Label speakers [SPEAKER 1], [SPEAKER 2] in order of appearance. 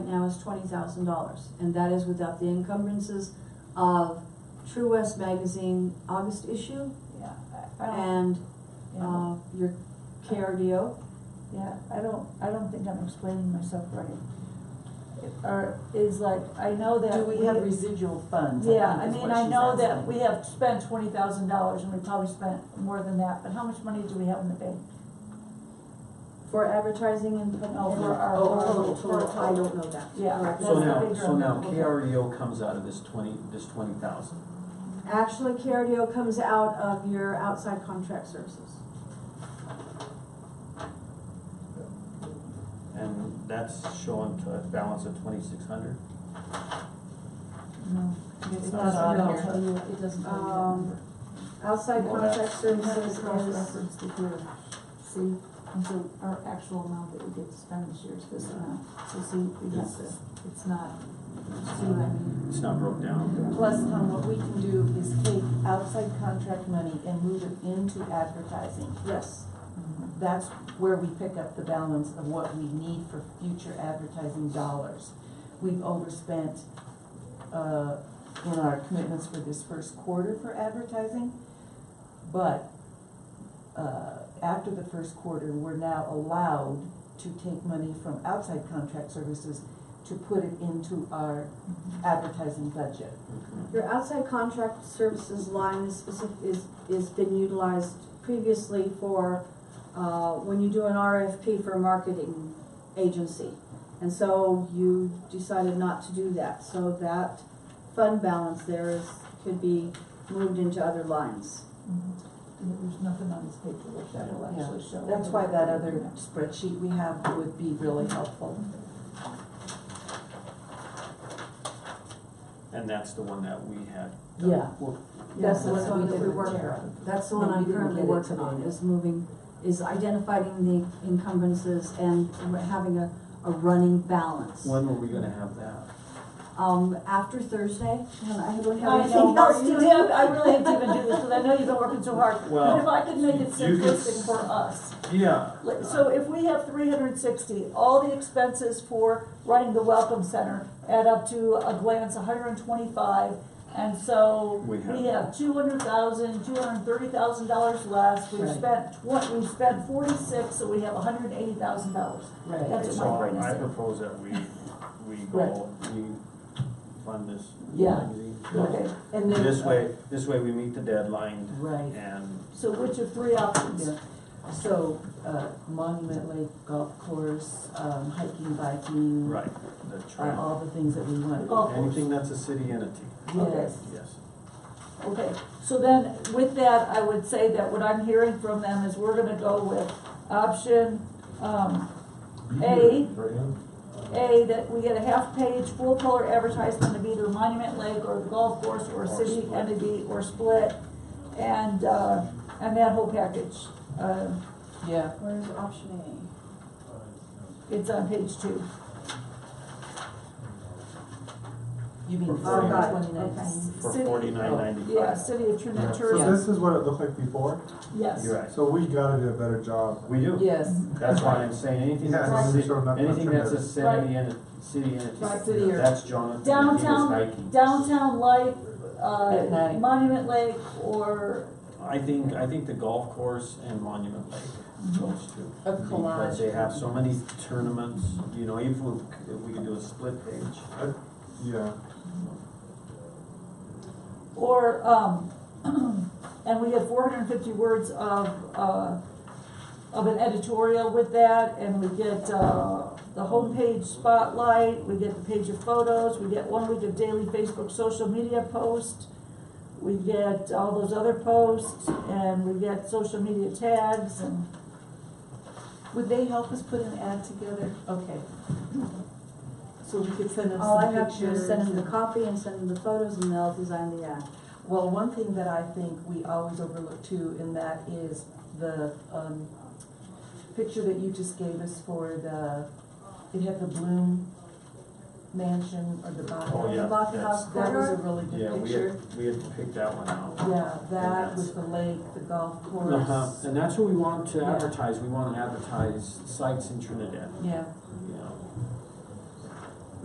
[SPEAKER 1] now is twenty thousand dollars, and that is without the encumbrances of True West Magazine August issue
[SPEAKER 2] Yeah, I, I don't,
[SPEAKER 1] and,
[SPEAKER 2] yeah,
[SPEAKER 3] um,
[SPEAKER 1] uh, your cardio.
[SPEAKER 2] yeah, I don't, I don't think I'm explaining myself right. It- Or is like, I know that.
[SPEAKER 3] Do we have residual funds?
[SPEAKER 2] Yeah, I
[SPEAKER 3] think is
[SPEAKER 2] mean,
[SPEAKER 3] what
[SPEAKER 2] I
[SPEAKER 3] she's
[SPEAKER 2] know that
[SPEAKER 3] asking.
[SPEAKER 2] we have spent twenty thousand dollars and we probably spent more than that, but how much money do we have in the bank?
[SPEAKER 1] For advertising and. pub-
[SPEAKER 2] Oh, for
[SPEAKER 1] and-
[SPEAKER 2] our-
[SPEAKER 1] oh,
[SPEAKER 2] our-
[SPEAKER 1] total,
[SPEAKER 2] for our
[SPEAKER 1] total, I don't know that.
[SPEAKER 2] Yeah.
[SPEAKER 1] Right.
[SPEAKER 2] That's
[SPEAKER 4] So
[SPEAKER 2] the
[SPEAKER 4] now,
[SPEAKER 2] big
[SPEAKER 4] so
[SPEAKER 2] drum.
[SPEAKER 4] now
[SPEAKER 2] Okay.
[SPEAKER 4] KREO comes out of this twenty, this twenty thousand.
[SPEAKER 1] Actually, cardio comes out of your outside contract services.
[SPEAKER 4] And that's showing to a balance of twenty-six hundred.
[SPEAKER 2] No,
[SPEAKER 4] It's
[SPEAKER 2] it's
[SPEAKER 4] not
[SPEAKER 2] not
[SPEAKER 4] on
[SPEAKER 2] on there. I'll
[SPEAKER 3] here.
[SPEAKER 2] tell you, it doesn't tell you that
[SPEAKER 1] Um,
[SPEAKER 2] number.
[SPEAKER 1] Outside
[SPEAKER 4] Well,
[SPEAKER 1] contract
[SPEAKER 3] We have
[SPEAKER 1] services
[SPEAKER 3] it
[SPEAKER 1] is,
[SPEAKER 3] cross-referenced to here, see, and so our actual amount that we get to spend this year is this amount, so see, we have to, it's not, see what I mean?
[SPEAKER 4] It's not broke down.
[SPEAKER 3] Plus, Tom, what we can do is take outside contract money and move it into advertising.
[SPEAKER 1] yes,
[SPEAKER 3] That's where we pick up the balance of what we need for future advertising dollars. We've overspent, uh, in our commitments for this first quarter for advertising, but, uh, after the first quarter, we're now allowed to take money from outside contract services to put it into our
[SPEAKER 2] Mm-hmm.
[SPEAKER 3] advertising budget.
[SPEAKER 1] your outside contract services line is specific, is, is been utilized previously for, uh, when you do an RFP for a marketing agency. And so you decided not to do that, so that fund balance there is, could be moved into other lines.
[SPEAKER 2] Mhm. There's nothing on this paperwork that will
[SPEAKER 3] Yeah.
[SPEAKER 2] actually show.
[SPEAKER 3] That's why that other spreadsheet we have would be really helpful.
[SPEAKER 4] And that's the one that we had.
[SPEAKER 3] Yeah.
[SPEAKER 4] Well,
[SPEAKER 1] That's the
[SPEAKER 3] That's
[SPEAKER 1] one
[SPEAKER 3] what
[SPEAKER 1] that
[SPEAKER 3] we
[SPEAKER 1] we
[SPEAKER 3] did
[SPEAKER 1] work
[SPEAKER 3] with Tara.
[SPEAKER 1] on, that's the
[SPEAKER 3] No,
[SPEAKER 1] one
[SPEAKER 3] we
[SPEAKER 1] I'm
[SPEAKER 3] didn't
[SPEAKER 1] currently
[SPEAKER 3] get it
[SPEAKER 1] working on,
[SPEAKER 3] today.
[SPEAKER 1] is moving, is identifying the encumbrances and having a, a running balance.
[SPEAKER 4] When were we gonna have that?
[SPEAKER 1] Um, after Thursday, and I don't have
[SPEAKER 2] I know,
[SPEAKER 1] anything else
[SPEAKER 2] Mark,
[SPEAKER 1] to
[SPEAKER 2] you
[SPEAKER 1] do.
[SPEAKER 2] did, I really had to even do this, because I know you've been working so hard,
[SPEAKER 4] Well,
[SPEAKER 2] but if I could make it
[SPEAKER 4] you could s-
[SPEAKER 2] simplistic for us.
[SPEAKER 4] Yeah.
[SPEAKER 2] Like, So if we have three hundred and sixty, all the expenses for running the welcome center add up to a glance, hundred and twenty-five. And so
[SPEAKER 4] We
[SPEAKER 2] we
[SPEAKER 4] have-
[SPEAKER 2] have two hundred thousand, two hundred and thirty thousand dollars less, we've
[SPEAKER 3] Right.
[SPEAKER 2] spent twen- we've spent forty-six, so we have hundred and eighty thousand dollars.
[SPEAKER 3] Right,
[SPEAKER 2] That's
[SPEAKER 4] So
[SPEAKER 2] what my brain is
[SPEAKER 4] I
[SPEAKER 2] saying.
[SPEAKER 4] propose that we, we go, we fund this.
[SPEAKER 3] Yeah.
[SPEAKER 4] magazine.
[SPEAKER 2] Okay,
[SPEAKER 3] and then.
[SPEAKER 4] This way, this way we meet the deadline
[SPEAKER 3] Right,
[SPEAKER 4] and
[SPEAKER 2] so which of three options?
[SPEAKER 3] yeah, so, uh, Monument Lake Golf Course, um, hiking, biking.
[SPEAKER 4] Right, the
[SPEAKER 3] Are
[SPEAKER 4] trail.
[SPEAKER 3] all the things that we want.
[SPEAKER 2] Golf course.
[SPEAKER 4] Anything that's a city entity,
[SPEAKER 3] Yes,
[SPEAKER 4] yes.
[SPEAKER 2] Okay, so then with that, I would say that what I'm hearing from them is we're gonna go with option, um, A. A, that we get a half-page, full-color advertisement of either Monument Lake or the golf course or a city entity or split. And, uh, and that whole package, uh,
[SPEAKER 3] yeah,
[SPEAKER 1] Where's option
[SPEAKER 2] it's on page two.
[SPEAKER 3] you mean
[SPEAKER 4] For
[SPEAKER 3] for
[SPEAKER 4] forty-
[SPEAKER 3] twenty
[SPEAKER 1] okay.
[SPEAKER 3] nineteen?
[SPEAKER 4] For
[SPEAKER 2] City-
[SPEAKER 4] forty-nine
[SPEAKER 2] Yeah,
[SPEAKER 4] ninety-five.
[SPEAKER 2] city of
[SPEAKER 5] Yeah,
[SPEAKER 2] Trinidad
[SPEAKER 5] So
[SPEAKER 3] Yeah.
[SPEAKER 2] Tourism,
[SPEAKER 5] this is what it looked like before,
[SPEAKER 2] yes.
[SPEAKER 4] You're right.
[SPEAKER 5] so we gotta do a better job.
[SPEAKER 4] We do.
[SPEAKER 3] Yes,
[SPEAKER 4] That's why I'm saying anything
[SPEAKER 5] Yeah,
[SPEAKER 2] Right.
[SPEAKER 4] that's a
[SPEAKER 5] we showed
[SPEAKER 4] city,
[SPEAKER 5] nothing but
[SPEAKER 4] anything that's a
[SPEAKER 5] tremendous.
[SPEAKER 4] city and city entity,
[SPEAKER 3] Right, city or-
[SPEAKER 4] that's Jonathan. and he was
[SPEAKER 2] Downtown,
[SPEAKER 4] Nike.
[SPEAKER 2] downtown light,
[SPEAKER 3] At
[SPEAKER 2] uh,
[SPEAKER 3] night.
[SPEAKER 2] Monument Lake or
[SPEAKER 4] I think, I think the golf course and Monument Lake, those two.
[SPEAKER 3] Of Mm-hmm. collage.
[SPEAKER 4] Because they have so many tournaments, you know, if we, if we could do a split page.
[SPEAKER 5] Yeah,
[SPEAKER 2] Or, um, and we have four hundred and fifty words of, uh, of an editorial with that, and we get, uh, the homepage spotlight, we get the page of photos, we get one week of daily Facebook social media post, we get all those other posts, and we get social media tags, and,
[SPEAKER 3] would they help us put an ad together? Okay. So we could send
[SPEAKER 1] A?
[SPEAKER 3] them
[SPEAKER 1] All I
[SPEAKER 3] some
[SPEAKER 1] have to do is
[SPEAKER 3] pictures.
[SPEAKER 1] send them the copy and send them the photos and they'll design the ad.
[SPEAKER 3] Well, one thing that I think we always overlook too, and that is the, um, picture that you just gave us for the, it had the Bloom Mansion or the Bach.
[SPEAKER 4] Oh, yeah,
[SPEAKER 1] The Lock
[SPEAKER 4] that's-
[SPEAKER 1] House
[SPEAKER 3] That was a
[SPEAKER 1] Corridor,
[SPEAKER 3] really
[SPEAKER 4] Yeah,
[SPEAKER 3] good
[SPEAKER 4] we
[SPEAKER 3] picture.
[SPEAKER 4] had, we had picked that one out.
[SPEAKER 3] Yeah, that
[SPEAKER 4] that's-
[SPEAKER 3] was the lake, the golf
[SPEAKER 4] Uh-huh,
[SPEAKER 3] course.
[SPEAKER 4] and that's what we want to
[SPEAKER 3] Yeah.
[SPEAKER 4] advertise, we wanna advertise sites in Trinidad.
[SPEAKER 3] Yeah,